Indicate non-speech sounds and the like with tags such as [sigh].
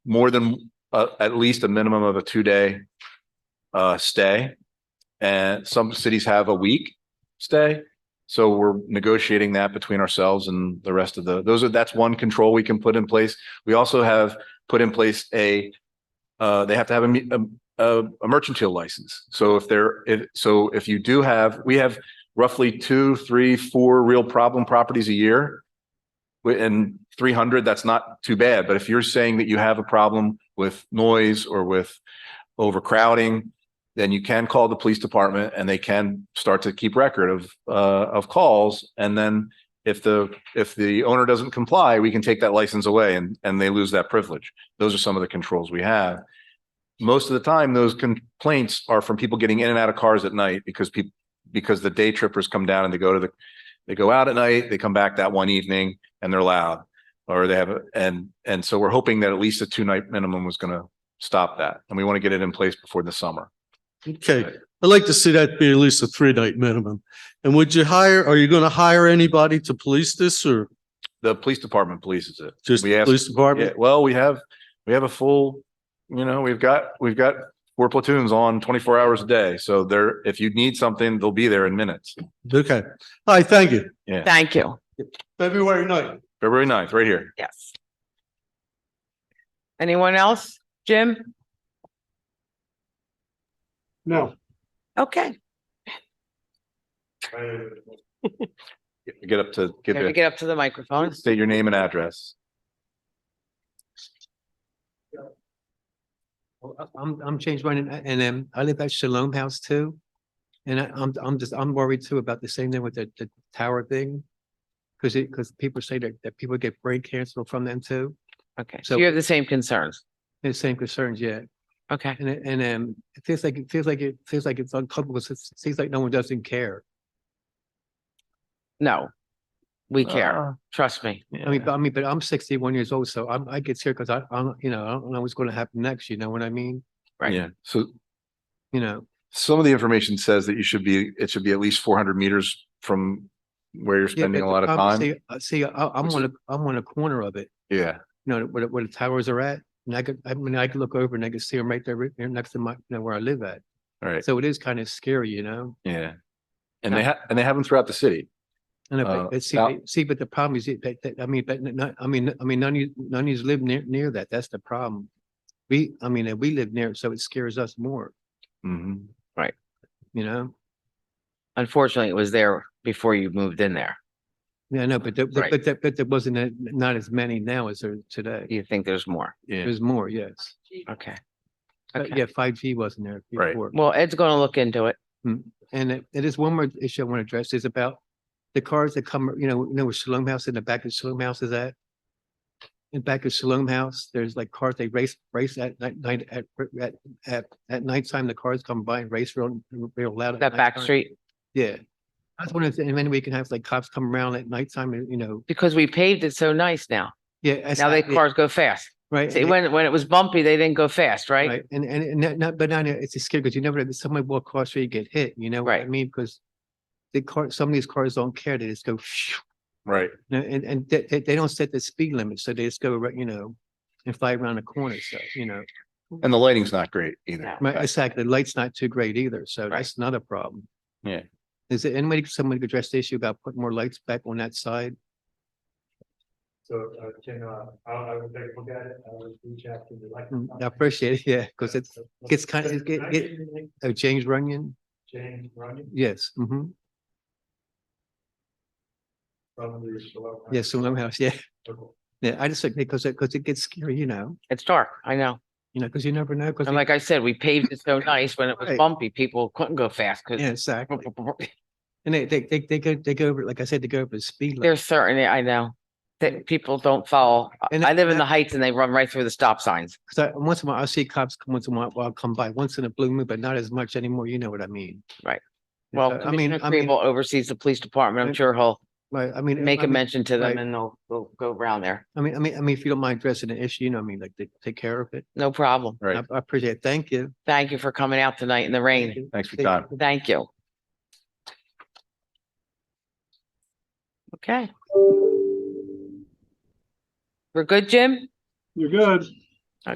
more than, uh, at least a minimum of a two-day uh, stay. And some cities have a week stay. So we're negotiating that between ourselves and the rest of the, those are, that's one control we can put in place. We also have put in place a, uh, they have to have a, me- a, a- a mercantile license. So if they're, if, so if you do have, we have roughly two, three, four real problem properties a year. Wi- And three hundred, that's not too bad. But if you're saying that you have a problem with noise or with overcrowding, then you can call the police department and they can start to keep record of, uh, of calls. And then if the, if the owner doesn't comply, we can take that license away and, and they lose that privilege. Those are some of the controls we have. Most of the time, those complaints are from people getting in and out of cars at night because people, because the day trippers come down and they go to the, they go out at night, they come back that one evening and they're loud. Or they have, a and, and so we're hoping that at least a two night minimum was gonna stop that. And we want to get it in place before the summer. Okay, I'd like to see that be at least a three night minimum. And would you hire, are you going to hire anybody to police this or The police department polices it. just We the asked- police Yeah, department? well, we have, we have a full, you know, we've got, we've got four platoons on twenty-four hours a day. So there, if you need something, they'll be there in minutes. Okay, all right, thank you. [laughs] Thank you. February night. February 9th, right here. Yes. Anyone else? Jim? No. Okay. Get up to, get Have to there, get up to the microphone. state your name and address. Well, I- I'm, I'm changed mine and- and um, I live at Shalom House too. And I- I'm, I'm just, I'm worried too about the same thing with the, the tower thing. Cause it, cause people say that, that people get brain cancer from them too. Okay, so So- you have the same concerns. The same concerns, yeah. Okay, And, it- and um, it feels like, it feels like, it feels like it's uncomfortable. It seems like no one doesn't care. no. Uh, We care, trust me. I mean, but I mean, but I'm sixty-one years old, so I'm, I get scared because I, I'm, you know, I don't know what's going to happen next. You know what I mean? right. Yeah, so You know, some of the information says that you should be, it should be at least four hundred meters from where you're Yeah, spending but a lot of I'm- time. see, uh, See, I, I'm Which on a, I'm on a corner of it. Yeah, you know, where, the- where the towers are at. And I could, I mean, I could look over and I could see them right there, right there next to my, you know, where I live at. all right, So it is kind of scary, you know? yeah. And they have, and they have them throughout the city. And if, Uh, I- but see, now- but- see, but the problem is, it- that, that, I mean, but n- not, I mean, I mean, none of you, none of you live near, near that. That's the problem. We, I mean, and we live near it, so it scares us more, Mhm. you know? Unfortunately, it was there before you moved in there. Yeah, no, but, there- Right. but, there- but there wasn't, a- not as many now as there today. You think there's more? Yeah, There's more, yes. Okay. But Okay, yeah, five G wasn't there Right. before. well, Ed's gonna look into it. And it, it is one more issue I want to address is about the cars that come, you know, you know, where Shalom House in the back of Shalom House is at. In back of Shalom House, there's like cars, they race, race at night, night, at, at, at, at nighttime, the cars come by and race real, real loud. at That back nighttime. street, Yeah. I was wondering if any way we can have like cops come around at nighttime, and, you know, because we paved it so nice now. yeah. as- Now they yeah, cars go fast. Right. See, and- when, when it was bumpy, they didn't go fast, right? Right. And, and, and not- not, but not, it's a scary because you never, if somebody walk across street, you get hit, you know what I Right. mean? Because the car, some of these cars don't care. They just go right. No, and, and they, they, they don't set the speed limit, so they just go, right, you know, and fly around the corner, so, you know. And the lighting's not great either. my- Exactly, the light's not too great either, so Right. that's another problem. Yeah. Is there any way someone could address the issue about putting more lights back on that side? So, uh, can, uh, I, I would take a look at it, I would reach out to the. Mm, I appreciate it, yeah, because it's, gets kind of- it- it- oh, James Runyon, James Runyon yes, hmm from the. Shalom House. yes, Salem House, yeah, Okay. yeah, I just think because, it- because it gets scary, you know, It's dark, I know. you know, because you never know, because, And like I said, we paved it so nice when it was Right. bumpy, people couldn't go fast yeah, because exactly. [laughs] And they, they, they, they go, they go over, like I said, they go over the speed limit. there's certainly, I know, that people don't follow. I And I that- live in the that- Heights and they run right through the stop signs. Cause I, once in a while, I see cops come once in a while, while come by, once in a blue moon, but not as much anymore. You know what I mean? Right. Yeah, Well, so, I mean, Commissioner I mean, Kribel oversees the police department. I'm I- sure he'll right, I mean. make I a mean- mention to them right. and they'll, they'll go around there. I mean, I mean, I mean, if you don't mind addressing the issue, you know, I mean, like, they take care of it. No problem. I Right. I appreciate it. Thank you. Thank you for coming out tonight in the Thank rain. you. Thanks for your Thank time. you. Thank you. Okay. We're good, Jim? You're good.